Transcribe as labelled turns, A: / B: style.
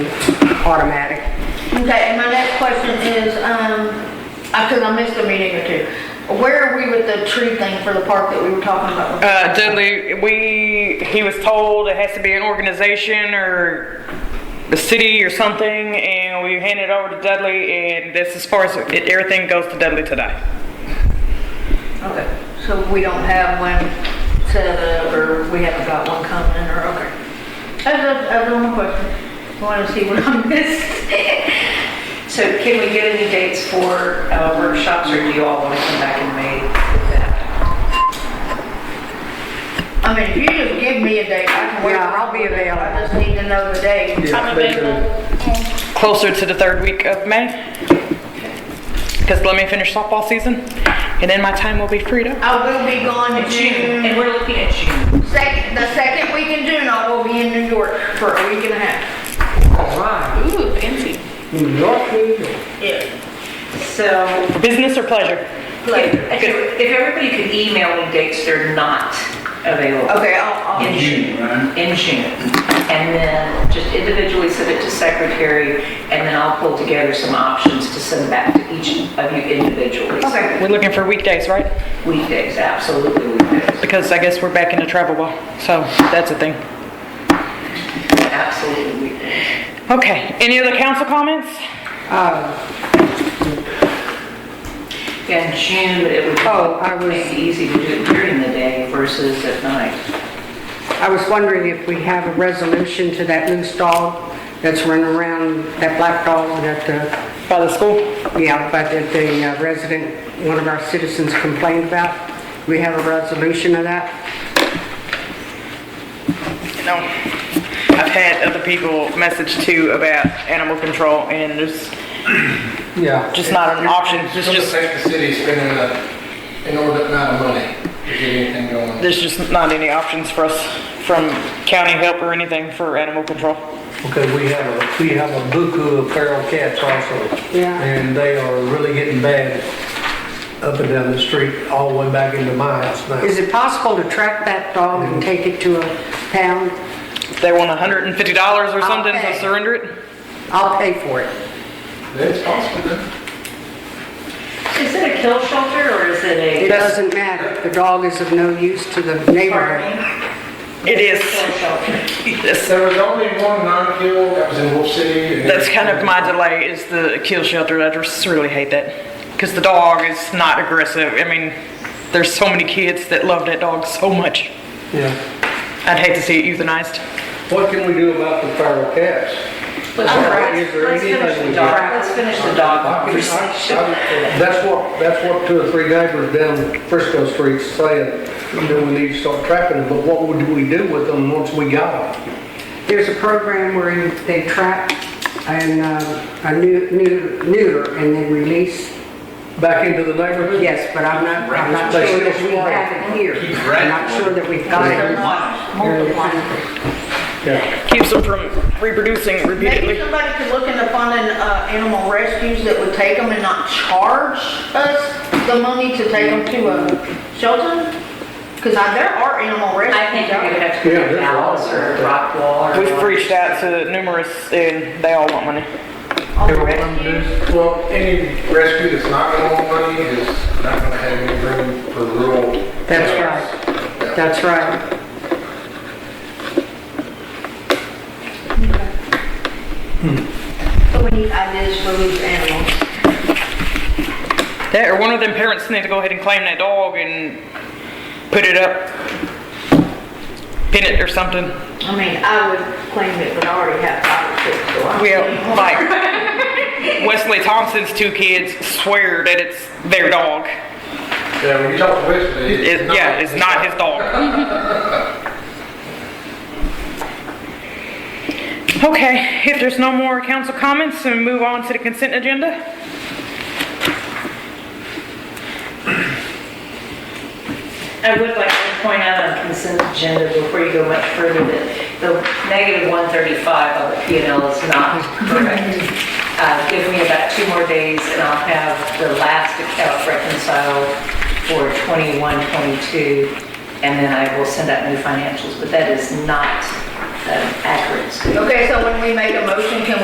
A: automatic.
B: Okay, and my next question is, um, because I missed a meeting or two. Where are we with the tree thing for the park that we were talking about?
C: Uh, Dudley, we, he was told it has to be an organization or the city or something, and we handed it over to Dudley, and that's as far as it, everything goes to Dudley today.
B: Okay, so we don't have one set up, or we haven't got one coming, or, okay. That's, a- that's one more question. I want to see what I missed.
D: So can we get any dates for uh, workshops, or do you all want to come back in May with that?
B: I mean, if you just give me a date, I can work.
A: Yeah, I'll be available.
B: I just need to know the date.
E: Yeah, they do.
C: Closer to the third week of May. Because let me finish softball season, and then my time will be freed up.
B: I will be gone in
D: June, and
B: June.
D: we're looking at June.
B: Second, the second week in June, I will be in New York for a week and a half.
A: All right.
E: Ooh, fancy.
A: New York, New York.
B: Yeah.
D: So
C: Business or pleasure?
D: if if everybody could email me dates they're not available
B: Okay, I'll, I'll.
D: in June, in June. And then just individually send it to secretary, and then I'll pull together some options to send back to each of you individually.
B: Okay.
C: We're looking for weekdays, right?
D: Weekdays, absolutely weekdays,
C: Because I guess we're back into travel ball, so that's a thing.
D: absolutely weekdays.
C: Okay, any other council comments?
A: Uh,
D: Yeah, in June, but it would
A: Oh, I was-
D: be maybe easy to do it during the day versus at night.
A: I was wondering if we have a resolution to that loose dog that's running around, that black dog that the,
C: By the school?
A: yeah, but that the uh, resident, one of our citizens complained about. We have a resolution of that?
C: You know, I've had other people message too about animal control and there's
F: Yeah.
C: just not an option. It's
E: It's gonna
C: just,
E: affect the city spending a- an inordinate amount of money to get anything going.
C: there's just not any options for us from county help or anything for animal control.
F: Okay, we have a, we have a buku of feral cats also.
A: Yeah.
F: And they are really getting bad up and down the street, all the way back into my house now.
A: Is it possible to track that dog and take it to a pound?
C: If They want hundred and fifty dollars or something
A: Okay.
C: to surrender it.
A: I'll pay for it.
E: That's possible, then.
D: Is it a kill shelter or is it
A: It
D: a?
A: doesn't matter. The dog is of no use to the neighborhood.
C: It
D: Kill
C: is,
D: shelter.
C: it's-
E: There was only one non-kill that was in Wolf City. and-
C: that's kind of my delay is the kill shelter. I just really hate that. Cause the dog is not aggressive. I mean, there's so many kids that love that dog so much.
F: Yeah.
C: I'd hate to see it euthanized.
F: What can we do about the feral cats?
D: Let's let's-
F: Is there
D: let's finish
F: anything
D: the
F: we
D: dog,
F: can-
D: let's finish the dog
F: I can-
D: conversation.
F: I- That's what, that's what two or three neighbors down Frisco Street's saying, you know, we need to start trapping them, but what would we do with them once we got them?
A: There's a program where you- they trap and, uh, a new, new, neuter and then release.
F: Back into the neighborhood?
A: Yes, but I'm not, I'm not
F: They
A: sure
F: still
A: that we
F: swarm.
A: have it here. I'm not sure that we've got it. They're in the country.
F: Yeah.
C: Keeps them from reproducing repeatedly.
B: Maybe somebody could look into funding, uh, animal rescues that would take them and not charge us the money to take them to a shelter? Cause I, there are animal rescues.
D: I think
B: out
D: we would
B: there.
D: have to
F: Yeah,
D: do
F: there's a lot
D: Dallas
F: of
D: or
F: that.
D: rock wall or.
C: We've reached out to numerous and they all want money.
B: All
F: Everyone
B: uh, rescues.
E: Well, any rescue that's not gonna want money is not gonna have any room for rural.
A: That's right. That's right.
B: So we need ideas for these animals.
C: That or one of them parents need to go ahead and claim that dog and put it up, pin it or something.
B: I mean, I would claim it, but I already have five or six, so I'm.
C: We have like Wesley Thompson's two kids swear that it's their dog.
E: Yeah, when you talk to Wesley.
C: It, yeah, it's not his dog. Okay, if there's no more council comments, then move on to the consent agenda.
D: I would like to point out on consent agenda before you go much further that the negative 135 on the P and L is not correct. Uh, Give me about two more days and I'll have the last account reconciled for 21, 22, and then I will send out new financials, but that is not an um, accurate statement.
B: Okay, so when we make a motion, can we